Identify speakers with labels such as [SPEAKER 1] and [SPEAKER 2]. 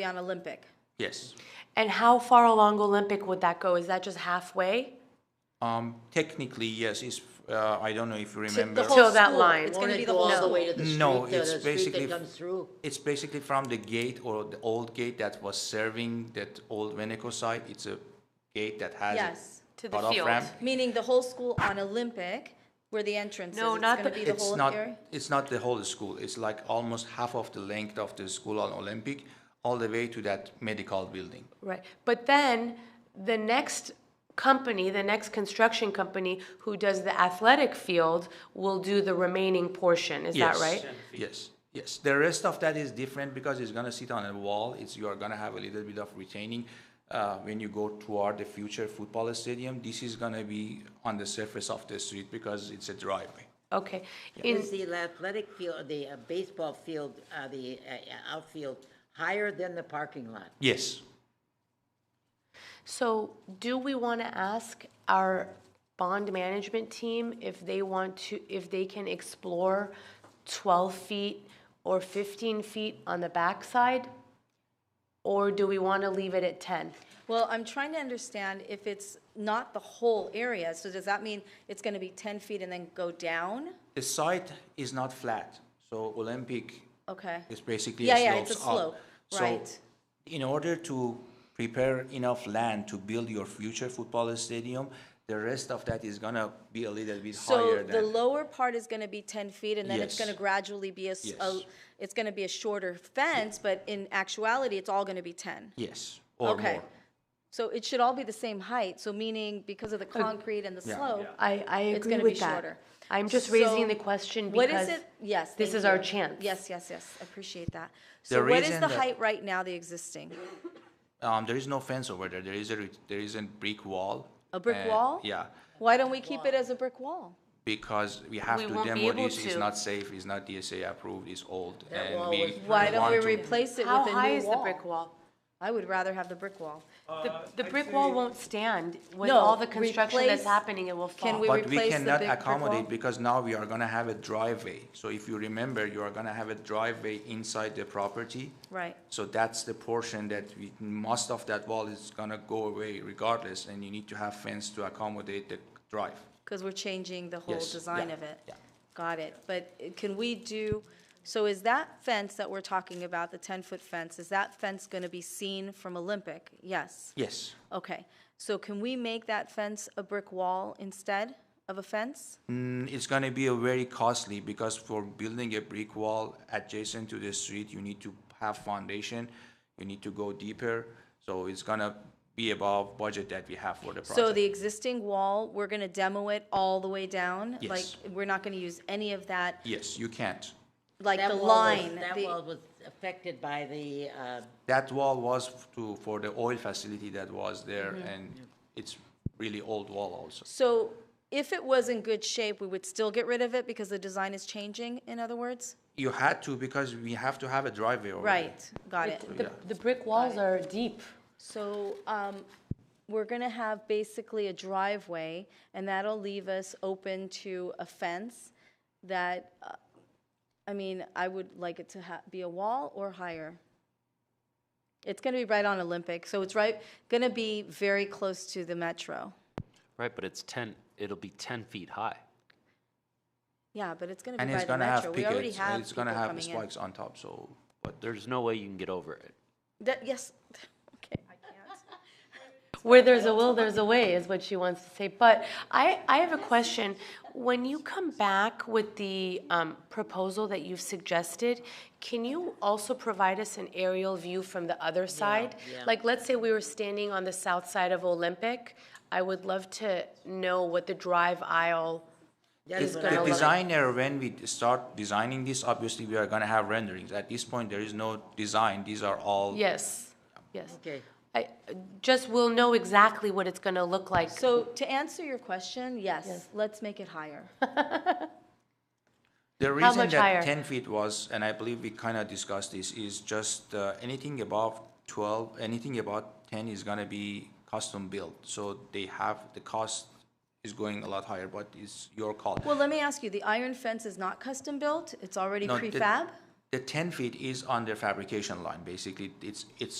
[SPEAKER 1] be on Olympic.
[SPEAKER 2] Yes.
[SPEAKER 3] And how far along Olympic would that go? Is that just halfway?
[SPEAKER 2] Um, technically, yes, it's, uh, I don't know if you
[SPEAKER 4] To
[SPEAKER 2] remember.
[SPEAKER 4] the whole
[SPEAKER 3] Till that
[SPEAKER 4] school.
[SPEAKER 3] line.
[SPEAKER 4] It's
[SPEAKER 3] Won't
[SPEAKER 4] gonna
[SPEAKER 1] it
[SPEAKER 4] be the
[SPEAKER 1] go
[SPEAKER 4] whole
[SPEAKER 1] all the
[SPEAKER 4] school.
[SPEAKER 1] way to
[SPEAKER 2] No, it's
[SPEAKER 4] the- the street that
[SPEAKER 2] basically,
[SPEAKER 4] comes through.
[SPEAKER 2] it's basically from the gate or the old gate that was serving that old Veneco site. It's a gate that has a
[SPEAKER 1] Yes.
[SPEAKER 3] To the
[SPEAKER 2] cutoff
[SPEAKER 3] field.
[SPEAKER 2] ramp.
[SPEAKER 1] Meaning the whole school on Olympic, where the entrance is.
[SPEAKER 3] No,
[SPEAKER 1] It's
[SPEAKER 3] not
[SPEAKER 1] gonna
[SPEAKER 3] the-
[SPEAKER 1] be
[SPEAKER 2] It's
[SPEAKER 1] whole
[SPEAKER 2] not,
[SPEAKER 1] area?
[SPEAKER 2] it's not the whole school. It's like almost half of the length of the school on Olympic, all the way to that medical building.
[SPEAKER 3] Right. But then the next company, the next construction company who does the athletic field will do the remaining portion. Is that
[SPEAKER 2] Yes,
[SPEAKER 3] right?
[SPEAKER 2] Yes, yes. The rest of that is different because it's gonna sit on a wall. It's, you are gonna have a little bit of retaining. Uh, when you go toward the future football stadium, this is gonna be on the surface of the street because it's a driveway.
[SPEAKER 3] Okay. In,
[SPEAKER 4] Is the athletic field, the uh, baseball field, uh, the uh, outfield higher than the parking lot?
[SPEAKER 2] Yes,
[SPEAKER 3] so do we want to ask our bond management team if they want to, if they can explore 12 feet or 15 feet on the backside? Or do we want to leave it at 10?
[SPEAKER 1] Well, I'm trying to understand if it's not the whole area, so does that mean it's gonna be ten feet and then go down?
[SPEAKER 2] the site is not flat, so Olympic
[SPEAKER 1] Okay.
[SPEAKER 2] is basically
[SPEAKER 1] Yeah, yeah,
[SPEAKER 2] a
[SPEAKER 1] it's a
[SPEAKER 2] slopes up.
[SPEAKER 1] slope,
[SPEAKER 2] So
[SPEAKER 1] right.
[SPEAKER 2] in order to prepare enough land to build your future football stadium, the rest of that is gonna be a little bit
[SPEAKER 1] So
[SPEAKER 2] higher
[SPEAKER 1] the
[SPEAKER 2] than.
[SPEAKER 1] lower part is gonna be ten feet, and then it's
[SPEAKER 2] Yes.
[SPEAKER 1] gonna gradually be a, s- a-
[SPEAKER 2] Yes.
[SPEAKER 1] it's gonna be a shorter fence, but in actuality, it's all gonna be ten.
[SPEAKER 2] Yes, or
[SPEAKER 1] Okay.
[SPEAKER 2] more.
[SPEAKER 1] So it should all be the same height, so meaning because of the concrete and the
[SPEAKER 2] Yeah.
[SPEAKER 1] slope.
[SPEAKER 3] I, I
[SPEAKER 1] It's
[SPEAKER 3] agree
[SPEAKER 1] gonna
[SPEAKER 3] with
[SPEAKER 1] be
[SPEAKER 3] that.
[SPEAKER 1] shorter.
[SPEAKER 3] I'm just raising
[SPEAKER 1] So
[SPEAKER 3] the question
[SPEAKER 1] What is
[SPEAKER 3] because
[SPEAKER 1] it? Yes.
[SPEAKER 3] this
[SPEAKER 1] thank
[SPEAKER 3] is our
[SPEAKER 1] you.
[SPEAKER 3] chance.
[SPEAKER 1] Yes, yes, yes, appreciate that.
[SPEAKER 2] The
[SPEAKER 1] So what is
[SPEAKER 2] reason
[SPEAKER 1] the
[SPEAKER 2] that-
[SPEAKER 1] height right now, the existing?
[SPEAKER 2] Um, there is no fence over there. There is a re- there is a brick wall.
[SPEAKER 1] A brick
[SPEAKER 2] and-
[SPEAKER 1] wall?
[SPEAKER 2] Yeah,
[SPEAKER 1] Why don't we keep it as a brick wall?
[SPEAKER 2] because we have
[SPEAKER 3] We
[SPEAKER 2] to
[SPEAKER 3] won't be
[SPEAKER 2] demo
[SPEAKER 3] able
[SPEAKER 2] this. It's
[SPEAKER 3] to.
[SPEAKER 2] not safe. It's not DSA approved. It's old,
[SPEAKER 4] That
[SPEAKER 2] and
[SPEAKER 4] wall
[SPEAKER 2] we
[SPEAKER 4] was
[SPEAKER 1] Why don't
[SPEAKER 2] want
[SPEAKER 1] we
[SPEAKER 2] to-
[SPEAKER 1] replace it
[SPEAKER 3] How
[SPEAKER 1] with a
[SPEAKER 3] high
[SPEAKER 1] new
[SPEAKER 3] is the
[SPEAKER 1] wall?
[SPEAKER 3] brick wall?
[SPEAKER 1] I would rather have the brick wall.
[SPEAKER 3] The, the brick wall won't stand with
[SPEAKER 1] No,
[SPEAKER 3] all the construction that's
[SPEAKER 1] replace-
[SPEAKER 3] happening, it will fall.
[SPEAKER 1] Can we
[SPEAKER 2] But we
[SPEAKER 1] replace the
[SPEAKER 2] cannot
[SPEAKER 1] big brick
[SPEAKER 2] accommodate
[SPEAKER 1] wall?
[SPEAKER 2] because now we are gonna have a driveway. So if you remember, you are gonna have a driveway inside the property.
[SPEAKER 1] Right.
[SPEAKER 2] So that's the portion that we, most of that wall is gonna go away regardless, and you need to have fence to accommodate the drive.
[SPEAKER 1] Because we're changing the whole
[SPEAKER 2] Yes,
[SPEAKER 1] design
[SPEAKER 2] yeah,
[SPEAKER 1] of it.
[SPEAKER 2] yeah.
[SPEAKER 1] Got it. But uh, can we do, so is that fence that we're talking about, the 10-foot fence, is that fence going to be seen from Olympic? Yes.
[SPEAKER 2] Yes.
[SPEAKER 1] Okay. So can we make that fence a brick wall instead of a fence?
[SPEAKER 2] It's going to be a very costly because for building a brick wall adjacent to the street, you need to have foundation, you need to go deeper. So it's going to be above budget that we have for the project.
[SPEAKER 1] So the existing wall, we're going to demo it all the way down?
[SPEAKER 2] Yes.
[SPEAKER 1] Like, we're not going to use any of that,
[SPEAKER 2] yes, you can't.
[SPEAKER 1] like
[SPEAKER 4] That
[SPEAKER 1] the
[SPEAKER 4] wall was-
[SPEAKER 1] line?
[SPEAKER 4] That
[SPEAKER 1] the-
[SPEAKER 4] wall was affected by the, uh,
[SPEAKER 2] That wall was to for the oil facility that was there,
[SPEAKER 1] Mm-hmm.
[SPEAKER 2] and it's really old wall also.
[SPEAKER 1] So if it was in good shape, we would still get rid of it because the design is changing, in other words?
[SPEAKER 2] You had to because we have to have a driveway. over there.
[SPEAKER 1] Right, got it.
[SPEAKER 3] The, the brick walls are deep.
[SPEAKER 1] So um, we're going to have basically a driveway, and that'll leave us open to a fence that, uh, I mean, I would like it to ha- be a wall or higher. It's going to be right on Olympic, so it's right, going to be very close to the metro.
[SPEAKER 5] Right, but it's ten. It'll be ten feet high.
[SPEAKER 1] Yeah, but it's going to
[SPEAKER 2] And
[SPEAKER 1] be
[SPEAKER 2] it's
[SPEAKER 1] by the
[SPEAKER 2] going to have
[SPEAKER 1] metro. We already
[SPEAKER 2] pickets, and
[SPEAKER 1] have
[SPEAKER 2] it's
[SPEAKER 1] people
[SPEAKER 2] going to have
[SPEAKER 1] coming in.
[SPEAKER 2] spikes on top, so, but
[SPEAKER 5] There's no way you can get over it.
[SPEAKER 1] That- Yes, okay.
[SPEAKER 3] Where there's a will, there's a way, is what she wants to say. But I, I have a question. When you come back with the um, proposal that you've suggested, can you also provide us an aerial view from the other side? Like, let's say we were standing on the south side of Olympic. I would love to know what the drive aisle
[SPEAKER 4] that is what I
[SPEAKER 2] The
[SPEAKER 3] gonna
[SPEAKER 4] was-
[SPEAKER 3] look-
[SPEAKER 2] designer, when we start designing this, obviously we are gonna have renderings. At this point, there is no design. These are all.
[SPEAKER 3] Yes, yes.
[SPEAKER 4] okay.
[SPEAKER 3] I, just we'll know exactly what it's gonna look like.
[SPEAKER 1] So to answer your question, yes, let's make it higher.
[SPEAKER 2] The reason
[SPEAKER 3] much higher?
[SPEAKER 2] that ten feet was, and I believe we kinda discussed this, is just, uh, anything above twelve, anything about ten is gonna be custom built. So they have, the cost is going a lot higher, but it's your call.
[SPEAKER 1] Well, let me ask you, the iron fence is not custom built, it's already
[SPEAKER 2] No, the-
[SPEAKER 1] prefab?
[SPEAKER 2] the ten feet is on their fabrication line, basically. It's, it's